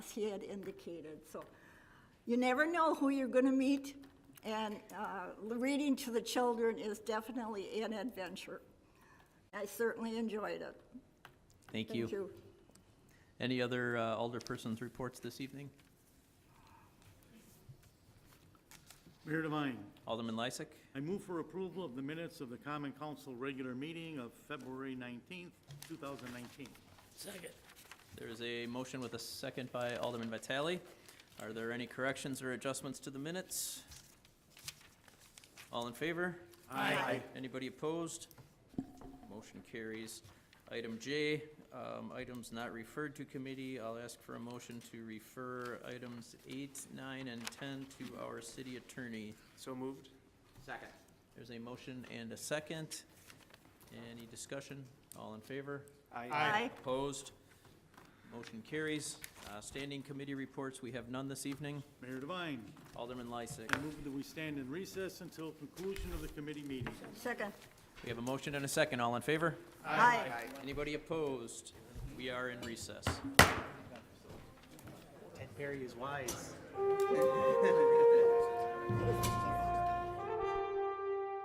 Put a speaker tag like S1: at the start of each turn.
S1: as he had indicated. So you never know who you're going to meet, and uh, reading to the children is definitely an adventure. I certainly enjoyed it.
S2: Thank you. Any other uh, alderpersons' reports this evening?
S3: Mayor Devine,
S2: Alderman Lysick,
S3: I move for approval of the minutes of the Common Council regular meeting of February 19th, 2019.
S2: there is a motion with a second by Alderman Vitale. Are there any corrections or adjustments to the minutes? All in favor?
S3: Aye.
S2: Anybody opposed? Motion carries. Item J, um, items not referred to committee. I'll ask for a motion to refer items eight, nine, and 10 to our city attorney.
S4: So moved. Second.
S2: There's a motion and a second. Any discussion? All in favor?
S1: Aye.
S2: Opposed? Motion carries. Uh, Standing committee reports, we have none this evening.
S3: Mayor Devine,
S2: Alderman Lysick.
S3: I move that we stand in recess until conclusion of the committee meeting.
S1: Second.
S2: We have a motion and a second. All in favor?
S1: Aye.
S2: Anybody opposed? We are in recess.
S4: Ted Perry is wise.